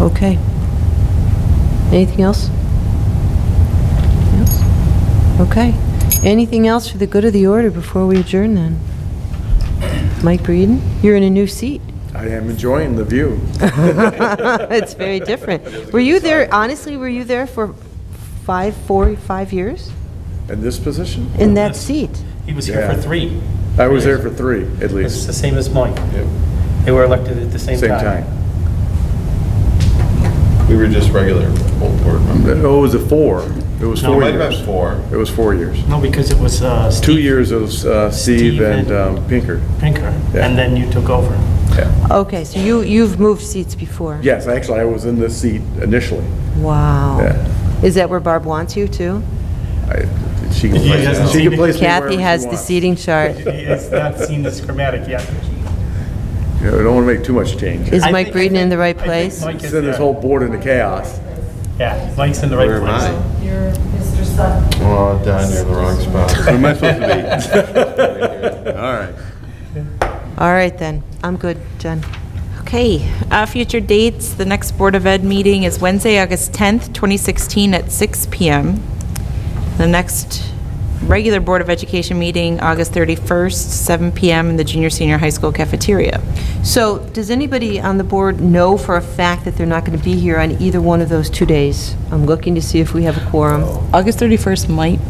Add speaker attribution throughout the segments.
Speaker 1: Okay. Anything else? Yes? Okay. Anything else for the good of the order before we adjourn then? Mike Breeden, you're in a new seat.
Speaker 2: I am enjoying the view.
Speaker 1: It's very different. Were you there, honestly, were you there for five, four, five years?
Speaker 2: In this position?
Speaker 1: In that seat?
Speaker 3: He was here for
Speaker 2: Yeah.
Speaker 3: three.
Speaker 2: I was there for three, at
Speaker 3: It's the
Speaker 2: least.
Speaker 3: same as Mike.
Speaker 4: Yep.
Speaker 3: They were elected at the same
Speaker 2: Same
Speaker 3: time.
Speaker 2: time.
Speaker 4: We were just regular old board members.
Speaker 2: Oh, it was a four. It was
Speaker 3: No,
Speaker 2: four
Speaker 4: Might have
Speaker 2: years.
Speaker 4: been four.
Speaker 2: It was four years.
Speaker 3: No, because it was uh,
Speaker 2: Two
Speaker 3: Steve
Speaker 2: years of uh, Steve
Speaker 3: Steve
Speaker 2: and
Speaker 3: and-
Speaker 2: um, Pinker.
Speaker 3: Pinker,
Speaker 2: Yeah.
Speaker 3: and then you took over.
Speaker 1: Okay, so you, you've moved seats before?
Speaker 2: Yes, actually, I was in this seat initially.
Speaker 1: Wow.
Speaker 2: Yeah.
Speaker 1: Is that where Barb wants you too?
Speaker 2: I- She can
Speaker 3: You
Speaker 2: place
Speaker 3: guys
Speaker 2: she can
Speaker 3: see-
Speaker 2: place me wherever
Speaker 1: Kathy
Speaker 2: she
Speaker 1: has the
Speaker 2: wants.
Speaker 1: seating chart.
Speaker 3: He has not seen this schematic yet.
Speaker 2: You know, I don't want to make too much change.
Speaker 1: Is
Speaker 3: I
Speaker 1: Mike
Speaker 3: think- I
Speaker 1: Breeden in
Speaker 3: think-
Speaker 1: the right
Speaker 3: I think
Speaker 1: place?
Speaker 3: Mike is
Speaker 2: Send this
Speaker 3: there.
Speaker 2: whole board into chaos.
Speaker 3: Yeah, Mike's in the right
Speaker 4: Where am
Speaker 3: place.
Speaker 4: I?
Speaker 5: You're Mr. Sutton.
Speaker 4: Oh, down there in the wrong spot.
Speaker 5: Where
Speaker 2: am I supposed
Speaker 4: to be? All right.
Speaker 1: All right then, I'm good, Jen.
Speaker 6: Okay, uh, future dates, the next Board of Ed meeting is Wednesday, August 10th, 2016 at 6 PM. The next regular Board of Education meeting, August 31st, 7 PM in the junior senior high school cafeteria.
Speaker 1: So, does anybody on the board know for a fact that they're not going to be here on either one of those two days? I'm looking to see if we have a quorum.
Speaker 6: August 31st might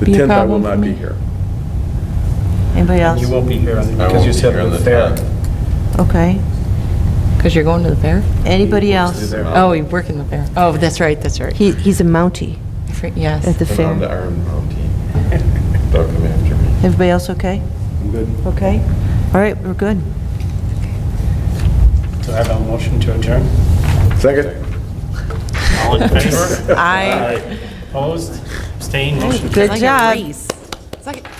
Speaker 2: The
Speaker 6: be a
Speaker 2: 10th, I will
Speaker 6: problem for
Speaker 2: not be
Speaker 6: me.
Speaker 2: here.
Speaker 1: Anybody else?
Speaker 3: You won't be here on-
Speaker 4: I
Speaker 3: because
Speaker 4: won't
Speaker 3: you
Speaker 4: be
Speaker 3: said
Speaker 4: here
Speaker 3: it
Speaker 4: on
Speaker 3: was
Speaker 4: the
Speaker 3: there.
Speaker 4: 10th.
Speaker 1: Okay.
Speaker 7: Because you're going to the fair?
Speaker 1: Anybody else?
Speaker 4: Either
Speaker 7: Oh, you work in the fair. Oh, that's right, that's right.
Speaker 1: He, he's a Mountie
Speaker 7: For- Yes.
Speaker 1: at the
Speaker 4: I'm on the
Speaker 1: fair.
Speaker 4: Iron Mountain. Don't come after me.
Speaker 1: Everybody else okay?
Speaker 4: I'm good.
Speaker 1: Okay? All right, we're good.
Speaker 3: Do I have a motion to adjourn?
Speaker 2: Second?
Speaker 3: All in favor?
Speaker 6: I,
Speaker 3: Opposed? Abstained? Motion
Speaker 1: Good
Speaker 6: like a
Speaker 1: job.
Speaker 6: race. It's like-